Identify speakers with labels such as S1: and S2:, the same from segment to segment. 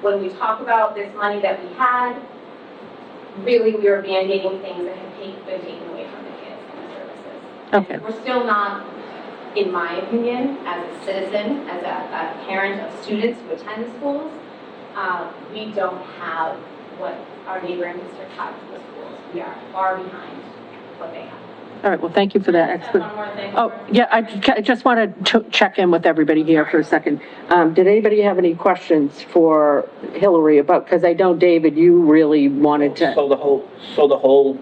S1: when we talk about this money that we had, really, we are band-aiding things that have ta- been taken away from the kids and the services.
S2: Okay,
S1: We're still not, in my opinion, as a citizen, as a, a parent of students who attend the schools, uh, we don't have what our neighboring district has for the schools. We are far behind what they have.
S2: all right, well, thank you for that.
S1: Just
S2: Excellent.
S1: One more thing.
S2: Oh, yeah, I ju- I just want to check in with everybody here for a second. Um, Did anybody have any questions for Hillary about, because I know, David, you really wanted to,
S3: So the whole, so the whole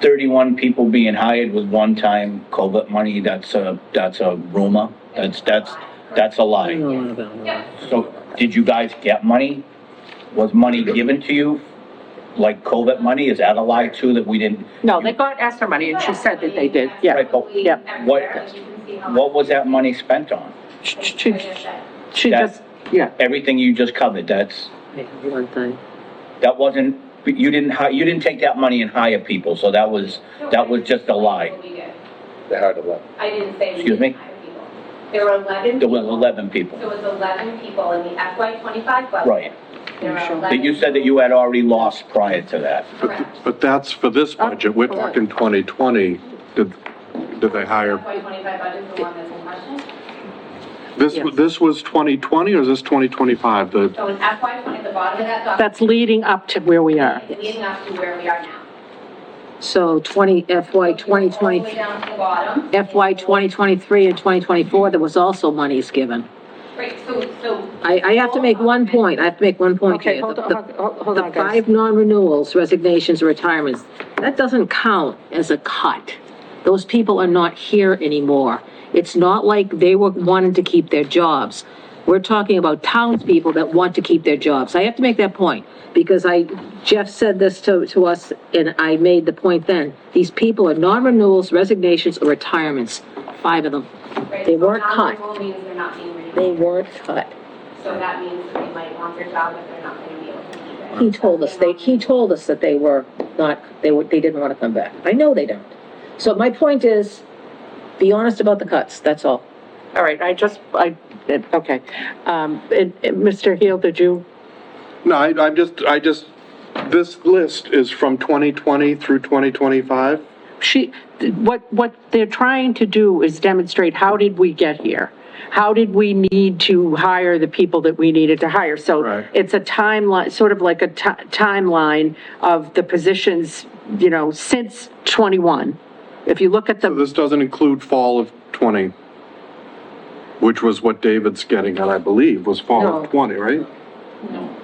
S3: 31 people being hired with one-time COVID money, that's a, that's a rumor? That's, that's, that's a lie?
S1: Yep.
S3: So did you guys get money? Was money given to you? Like COVID money? Is that a lie too, that we didn't?
S2: no, they got, asked for money, and she said that they did, yeah.
S3: Right, but
S1: Absolutely.
S3: what-
S1: Everybody, you can see how
S3: What
S1: much-
S3: was that money spent on?
S2: She,
S1: Like I said,
S2: she just, yeah.
S3: Everything you just covered, that's,
S2: One thing.
S3: that wasn't, you didn't, hi- you didn't take that money and hire people, so that was, that was just a lie.
S1: what we did.
S4: They hired a lot.
S1: I didn't say we
S3: Excuse me?
S1: didn't hire people. There were 11
S3: There was
S1: people.
S3: 11 people.
S1: There was 11 people in the FY25 budget.
S3: Right.
S1: There are
S2: Sure.
S3: That
S1: 11
S3: you said that you had already lost prior to that.
S1: Correct.
S4: But that's for this
S2: Oh,
S4: budget, we're talking 2020, did, did they hire?
S1: FY25 budget is the one that's in question.
S4: This,
S2: Yes.
S4: this was 2020 or is this 2025? The,
S1: So in FY20, at the bottom of that document,
S2: That's leading up to where we are.
S1: it's leading up to where we are now.
S5: So 20, FY
S1: All the way
S5: 2020,
S1: down to the bottom.
S5: FY 2023 and 2024, there was also monies given.
S1: Right, so, so.
S5: I, I have to make one point, I have to make one point here.
S2: Okay, hold
S5: The-
S2: on,
S5: the-
S2: hold- hold on,
S5: The
S2: guys.
S5: five non-renewals, resignations, retirements, that doesn't count as a cut. Those people are not here anymore. It's not like they were wanting to keep their jobs. We're talking about townspeople that want to keep their jobs. I have to make that point, because I, Jeff said this to, to us, and I made the point then. These people are non-renewals, resignations, or retirements, five of them.
S1: right,
S5: They
S1: so
S5: weren't cut.
S1: Non-renewal means they're not being renewed.
S5: They weren't cut.
S1: So that means that they might want their job, but they're not going to be able to keep it.
S5: He told us, they, he told us that they were not, they were, they didn't want to come back. I know they don't. So my point is, be honest about the cuts, that's all.
S2: All right, I just, I, it- okay. Um, and- and Mr. Heel, did you?
S4: no, I, I'm just, I just, this list is from 2020 through 2025?
S2: She, what, what they're trying to do is demonstrate, how did we get here? How did we need to hire the people that we needed to hire? So
S4: Right.
S2: it's a timeline, sort of like a ti- timeline of the positions, you know, since 21. If you look at the,
S4: This doesn't include fall of 20, which was what David's getting at, I believe, was fall
S2: No.
S4: of 20, right?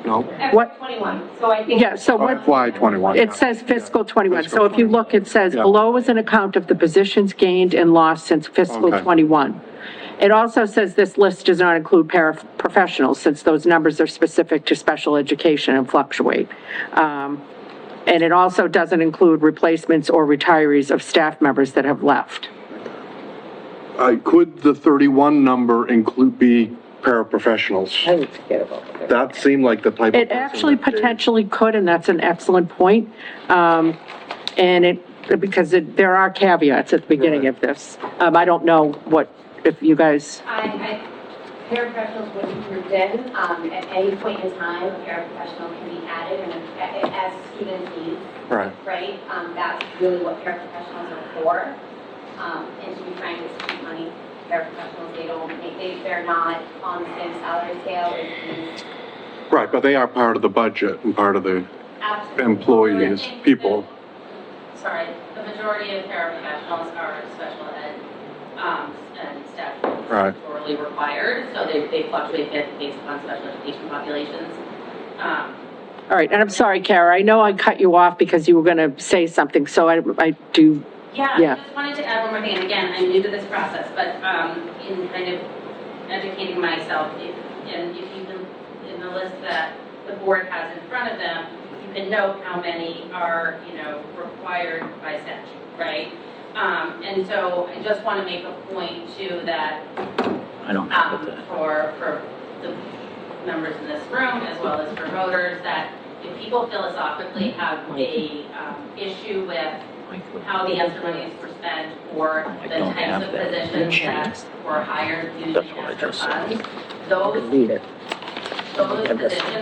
S4: No?
S2: What-
S1: FY21, so I think.
S2: yeah, so what?
S4: FY 21.
S2: It says fiscal 21, so
S4: Fiscal
S2: if you
S4: 21.
S2: look, it says
S4: Yeah.
S2: below is an account of the positions gained and lost since fiscal
S4: Okay.
S2: 21. It also says this list does not include paraprofessionals, since those numbers are specific to special education and fluctuate. Um, And it also doesn't include replacements or retirees of staff members that have left.
S4: Uh, Could the 31 number include, be paraprofessionals?
S5: I would forget about the cuts.
S4: That seemed like the type of.
S2: It
S4: person
S2: actually
S4: that David-
S2: potentially could, and that's an excellent point. Um, And it, because it- there are caveats at the beginning of this. Um, I don't know what, if you guys,
S1: I, I, paraprofessionals would be grouped in, um, at any point in time, a paraprofessional can be added and a- a- as students need,
S4: Right.
S1: right? Um, that's really what paraprofessionals are for. Um, and to be frank, it's cheap money. Paraprofessionals, they don't make, they, they're not on the same salary scale as these.
S4: Right, but they are part of the budget and part of the
S1: absolute-
S4: employees, people.
S6: sorry, the majority of paraprofessionals are special ed, um, and staff who
S4: Right.
S6: are statutorily required, so they, they fluctuate based upon special education populations. Um,
S2: all right, and I'm sorry, Kara, I know I cut you off because you were going to say something, so I, I do,
S6: Yeah,
S2: Yeah.
S6: I just wanted to add one more thing, and again, I'm new to this process, but um, in kind of educating myself, if- and if you can, in the list that the board has in front of them, you can note how many are, you know, required by statute, right? Um, And so I just want to make a point too that
S3: I don't
S6: um, for, for the members in this room, as well as for voters, that if people philosophically have a um, issue with how the extra monies were spent or
S3: I
S6: the
S3: don't Oh have
S6: types of
S3: that.
S6: positions that were hired using
S3: That's what I
S6: extra
S3: just said.
S6: funds,
S5: I
S6: those
S5: could read it.
S1: those positions